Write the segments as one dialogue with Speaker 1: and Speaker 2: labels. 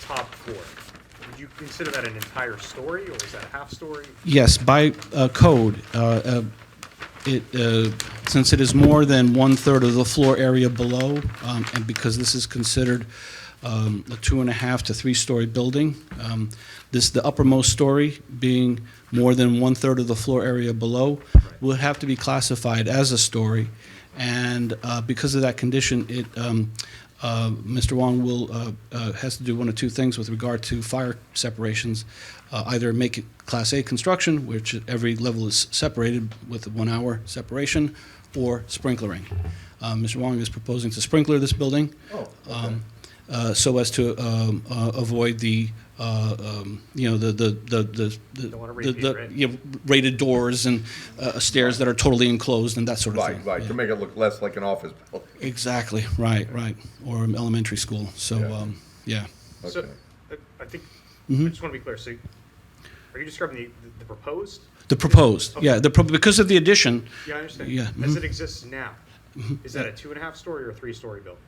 Speaker 1: top floor. Would you consider that an entire story, or is that a half story?
Speaker 2: Yes, by uh, code, uh, uh, it, uh, since it is more than one-third of the floor area below, um, and because this is considered um, a two-and-a-half to three-story building, um, this, the uppermost story being more than one-third of the floor area below, would have to be classified as a story. And uh, because of that condition, it, um, uh, Mr. Wong will, uh, uh, has to do one of two things with regard to fire separations. Uh, Either make it Class A construction, which every level is separated with a one-hour separation, or sprinklering. Uh, Mr. Wong is proposing to sprinkler this building
Speaker 3: Oh,
Speaker 2: um, uh, so as to um, uh, avoid the, uh, um, you know, the, the, the- the. the-
Speaker 1: Don't wanna
Speaker 2: the-
Speaker 1: repeat,
Speaker 2: the-
Speaker 1: right?
Speaker 2: you know, Rated doors and uh, stairs that are totally enclosed and that sort of thing.
Speaker 4: Right, right,
Speaker 2: Yeah.
Speaker 4: to make it look less like an office building.
Speaker 2: Exactly, right, right, or an elementary school, so,
Speaker 4: Yeah.
Speaker 2: um, yeah.
Speaker 1: So,
Speaker 4: Okay.
Speaker 1: uh, I think, I
Speaker 2: Mm-hmm.
Speaker 1: just want to be clear, so are you describing the, the proposed?
Speaker 2: The proposed, yeah, the, pro- because of the addition,
Speaker 1: Yeah, I understand.
Speaker 2: Yeah, Mm-hmm.
Speaker 1: As
Speaker 2: mhm.
Speaker 1: it exists now, is that a two and a half story or a three story building?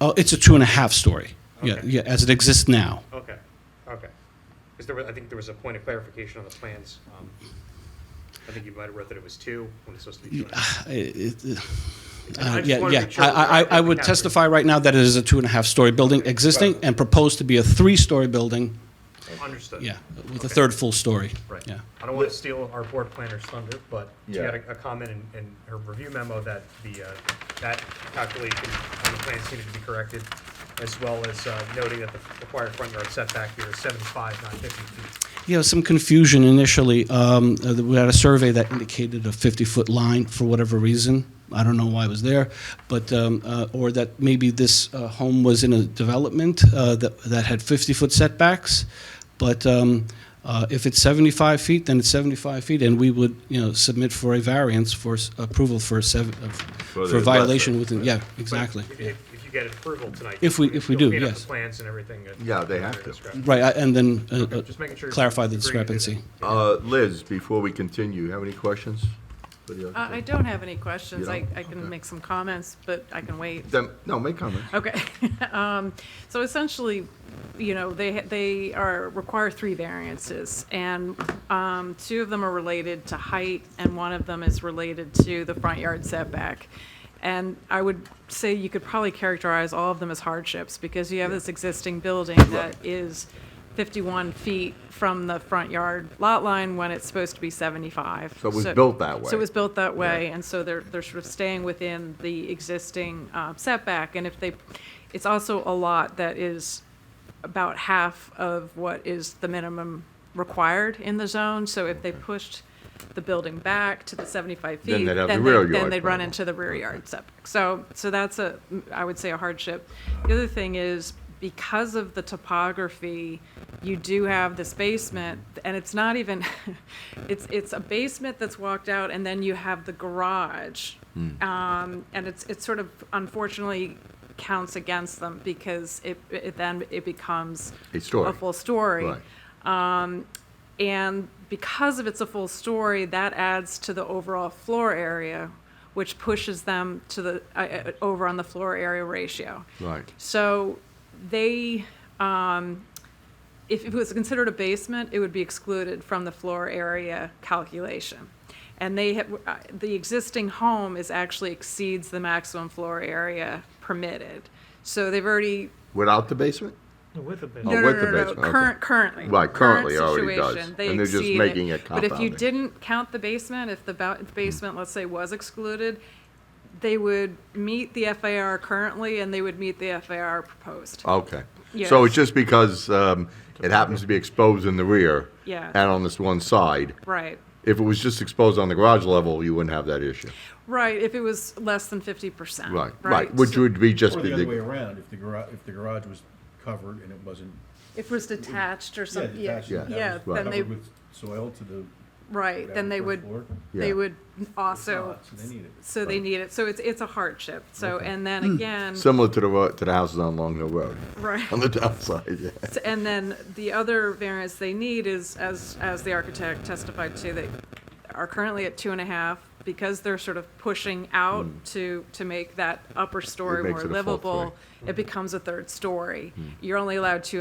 Speaker 2: oh, it's a two and a half story, yeah,
Speaker 1: Okay.
Speaker 2: yeah, as it exists now.
Speaker 1: Okay, okay. Because there was, I think there was a point of clarification on the plans. um, I think you might have read that it was two, when it's supposed to be two and a half.
Speaker 2: It- it-
Speaker 1: I
Speaker 2: uh,
Speaker 1: just
Speaker 2: Yeah,
Speaker 1: wanted to
Speaker 2: yeah,
Speaker 1: make sure
Speaker 2: I,
Speaker 1: that
Speaker 2: I,
Speaker 1: I-
Speaker 2: I would
Speaker 1: I-
Speaker 2: testify right now that it is a two and a half story building existing and proposed to be a three-story building,
Speaker 1: Understood.
Speaker 2: yeah, with a
Speaker 1: Okay.
Speaker 2: third full story.
Speaker 1: Right.
Speaker 2: Yeah,
Speaker 1: I don't want to steal our board planner's thunder, but she
Speaker 4: Yeah.
Speaker 1: had a, a comment in, in her review memo that the, uh, that calculation on the plans needed to be corrected, as well as uh, noting that the required front yard setback here is seventy-five, not fifty feet.
Speaker 2: you know, some confusion initially, um, uh, we had a survey that indicated a 50-foot line for whatever reason, I don't know why it was there, but, um, uh, or that maybe this uh, home was in a development uh, that, that had 50-foot setbacks, but um, uh, if it's 75 feet, then it's 75 feet, and we would, you know, submit for a variance for s- approval for a seven, of-
Speaker 4: the
Speaker 2: for
Speaker 4: lesser,
Speaker 2: violation within, yeah, exactly.
Speaker 1: But If, if- if you get approval tonight.
Speaker 2: If we-
Speaker 1: you'll-
Speaker 2: if we
Speaker 1: you'll
Speaker 2: do,
Speaker 1: clean up
Speaker 2: yes.
Speaker 1: The plans and everything. that-
Speaker 4: Yeah, they have
Speaker 1: that are
Speaker 4: to.
Speaker 1: described.
Speaker 2: Right, I- and then uh,
Speaker 1: Okay,
Speaker 2: uh,
Speaker 1: Just making sure. you
Speaker 2: clarify the
Speaker 1: agree to do that.
Speaker 2: discrepancy.
Speaker 4: Uh, Liz, before we continue, you have any questions? for the
Speaker 5: Uh, I
Speaker 4: architect?
Speaker 5: don't have any questions.
Speaker 4: You
Speaker 5: I,
Speaker 4: don't?
Speaker 5: I can
Speaker 4: Okay.
Speaker 5: make some comments, but I can wait.
Speaker 4: Then, no, make comments.
Speaker 5: Okay. Um, So essentially, you know, they, ha- they are, require three variances, and um, two of them are related to height, and one of them is related to the front yard setback. And I would say you could probably characterize all of them as hardships, because you have this existing building that is 51 feet from the front yard lot line when it's supposed to be 75.
Speaker 4: So it was built that
Speaker 5: So
Speaker 4: way.
Speaker 5: it was built that way, and so they're, they're sort of staying within the existing uh, setback. And if they, it's also a lot that is about half of what is the minimum required in the zone. So if they pushed the building back to the 75 feet,
Speaker 4: Then they'd have the
Speaker 5: then
Speaker 4: rear
Speaker 5: they- then
Speaker 4: yard
Speaker 5: they'd run
Speaker 4: problem.
Speaker 5: into the rear yard setback. So, so that's a, I would say, a hardship. The other thing is, because of the topography, you do have this basement, and it's not even, it's, it's a basement that's walked out, and then you have the garage.
Speaker 4: Hmm.
Speaker 5: Um, and it's, it's sort of unfortunately counts against them, because it, it then, it becomes
Speaker 4: A story.
Speaker 5: a full story.
Speaker 4: Right.
Speaker 5: And because of it's a full story, that adds to the overall floor area, which pushes them to the, uh, uh, over on the floor area ratio.
Speaker 4: Right.
Speaker 5: So they, um, if it was considered a basement, it would be excluded from the floor area calculation. And they have, uh, the existing home is actually exceeds the maximum floor area permitted. So they've already
Speaker 4: Without the basement?
Speaker 1: With a bit.
Speaker 4: Oh,
Speaker 5: no, no,
Speaker 4: with the
Speaker 5: no, no, no,
Speaker 4: basement, okay.
Speaker 5: current, currently.
Speaker 4: Right,
Speaker 5: current
Speaker 4: currently already does,
Speaker 5: situation, they
Speaker 4: and they're just
Speaker 5: exceed it.
Speaker 4: making it
Speaker 5: But if you
Speaker 4: compounding.
Speaker 5: didn't count the basement, if the ba- basement, let's say, was excluded, they would meet the FAR currently and they would meet the FAR proposed.
Speaker 4: Okay. So it's just because um, it happens to be exposed in the rear
Speaker 5: Yeah.
Speaker 4: and on this one side.
Speaker 5: Right,
Speaker 4: If it was just exposed on the garage level, you wouldn't have that issue.
Speaker 5: right, if it was less than fifty percent.
Speaker 4: Right, right, which
Speaker 5: so
Speaker 4: would be just
Speaker 3: Or
Speaker 4: be
Speaker 3: the other way
Speaker 4: the,
Speaker 3: around, if the garage, if the garage was covered and it wasn't.
Speaker 5: If it was detached or something, yeah,
Speaker 3: detached, that
Speaker 5: yeah,
Speaker 3: was
Speaker 5: then they,
Speaker 3: Covered with soil to the.
Speaker 5: right, then they would,
Speaker 3: ground floor.
Speaker 5: they
Speaker 4: Yeah.
Speaker 5: would also,
Speaker 3: not, so they need it.
Speaker 5: so they need it, so it's, it's a hardship, so, and then
Speaker 4: Hmm.
Speaker 5: again,
Speaker 4: similar to the, ro- to the houses on Long Hill Road,
Speaker 5: right.
Speaker 4: on the downside, yeah.
Speaker 5: So- And then the other variance they need is, as, as the architect testified to, they are currently at two and a half because they're sort of pushing out to, to make that upper story
Speaker 4: Mm. It makes
Speaker 5: more
Speaker 4: it a Mm. full
Speaker 5: livable. It becomes a third story. You're only allowed two